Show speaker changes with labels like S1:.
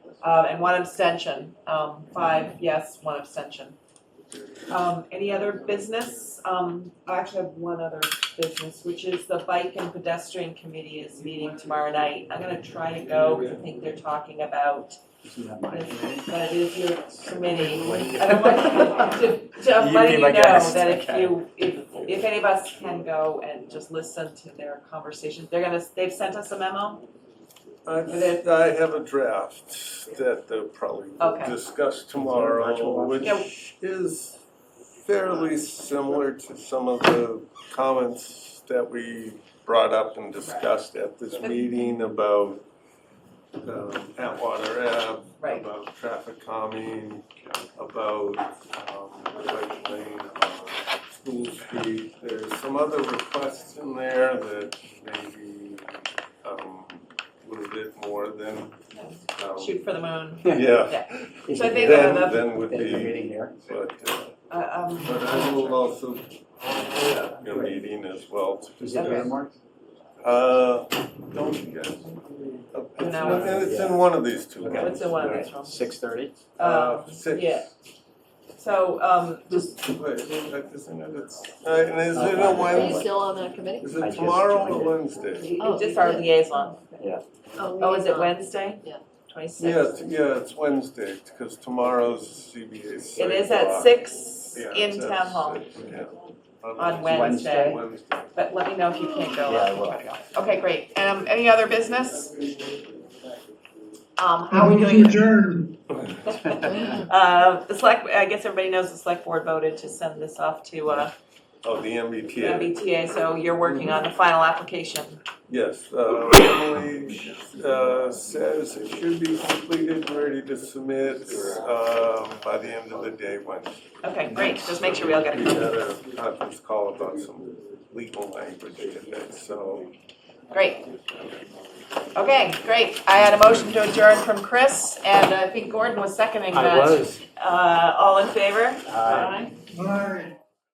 S1: um, and one abstention. Um, five yes, one abstention. Um, any other business? Um, I actually have one other business, which is the Bike and Pedestrian Committee is meeting tomorrow night. I'm gonna try to go, 'cause I think they're talking about, but it is your committee. I don't want to, to
S2: You
S1: letting
S2: be
S1: you
S2: my
S1: know
S2: guest,
S1: that if
S2: okay.
S1: you, if, if any of us can go and just listen to their conversations, they're gonna, they've sent us a memo.
S3: I, I have a draft that they'll probably
S1: Okay.
S3: discuss
S2: virtual
S3: tomorrow,
S2: one?
S3: which is fairly similar to some of the comments that we brought up and discussed at this
S1: Right.
S3: meeting about um, Atwater Ave,
S1: Right.
S3: about traffic calming, about um, bike lane, about School Street. There's some other requests in there that maybe um, a little bit more than, um,
S1: Shoot for the moon.
S3: yeah,
S1: So I think
S3: then,
S1: that-
S3: then would
S2: There's a
S3: be,
S2: meeting here.
S3: but, uh,
S1: Uh, um,
S3: but I will also, a meeting as well.
S2: Is it
S1: Okay.
S2: there, Mark?
S3: Uh, don't you guys? Uh, It's
S1: No.
S3: in- it's in one of these two.
S2: Okay.
S1: what's in one of these rooms?
S2: Six thirty?
S3: Uh,
S1: Um,
S3: six.
S1: yeah. So, um, just,
S3: Wait, isn't it, it's, uh, and is it a
S2: Okay.
S4: Are you
S3: Wednesday?
S4: still on that committee?
S3: Is
S2: I
S3: it
S2: just
S3: tomorrow
S2: joined
S3: or
S2: it.
S3: Wednesday?
S4: Oh,
S1: just
S4: you
S1: our
S4: did.
S1: liaison. Oh, is it
S4: liaison.
S1: Wednesday?
S4: Yeah.
S3: Yeah,
S1: Twenty-six.
S3: it's- yeah, it's Wednesday, because tomorrow's CBA
S1: It
S3: site
S1: is at
S3: walk.
S1: six
S3: Yeah,
S1: in
S3: it's at
S1: town hall,
S3: six, yeah.
S1: On Wednesday.
S3: Wednesday.
S1: but let me know if you can't go.
S2: Yeah, I
S1: I'll
S2: will.
S1: try to go. Okay, great. Um, any other business? Um, how are we doing? Uh, the select, I guess everybody knows the select board voted to send this off to, uh,
S3: Oh, the MBTA.
S1: MBTA, so you're working on the final application.
S3: Yes, uh, Emily uh, says it should be completed, and ready to submit um, by the end of the day Wednesday.
S1: Okay, great. Just make sure we all get
S3: We
S1: a
S3: had
S1: copy.
S3: a conference call about some legal language today, so.
S1: Great. Okay, great. I had a motion to adjourn from Chris, and I think Gordon was seconding that.
S2: I was.
S1: Uh, all in favor?
S2: Aye.
S5: All right.